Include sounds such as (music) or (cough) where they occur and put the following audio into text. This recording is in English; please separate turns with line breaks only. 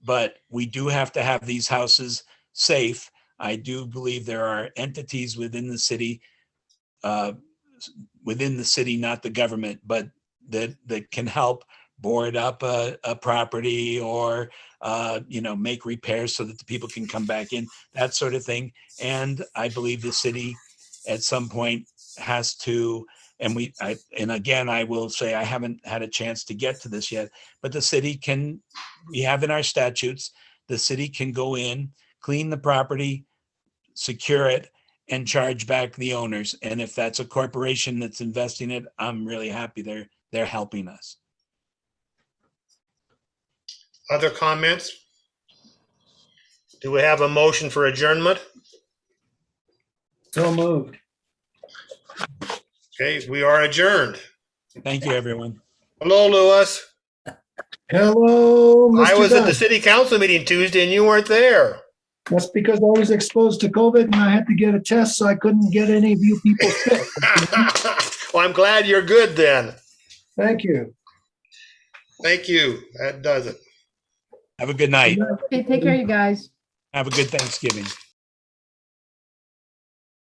but we do have to have these houses safe. I do believe there are entities within the city, uh, s- within the city, not the government, but that, that can help board up a, a property or, uh, you know, make repairs so that the people can come back in, that sort of thing. And I believe the city at some point has to, and we, I, and again, I will say, I haven't had a chance to get to this yet, but the city can we have in our statutes, the city can go in, clean the property, secure it, and charge back the owners. And if that's a corporation that's investing it, I'm really happy they're, they're helping us.
Other comments? Do we have a motion for adjournment?
So moved.
Okay, we are adjourned.
Thank you, everyone.
Hello, Lewis.
Hello,
I
Mr.
was at the
Dunn.
city council meeting Tuesday and you weren't there. (laughs)
That's because I was exposed to COVID and I had to get a test, so I couldn't get any of you people sick.
Well, I'm glad you're good then.
Thank you.
Thank you. That does it.
Have a good night.
Okay, take care, you guys.
Have a good Thanksgiving.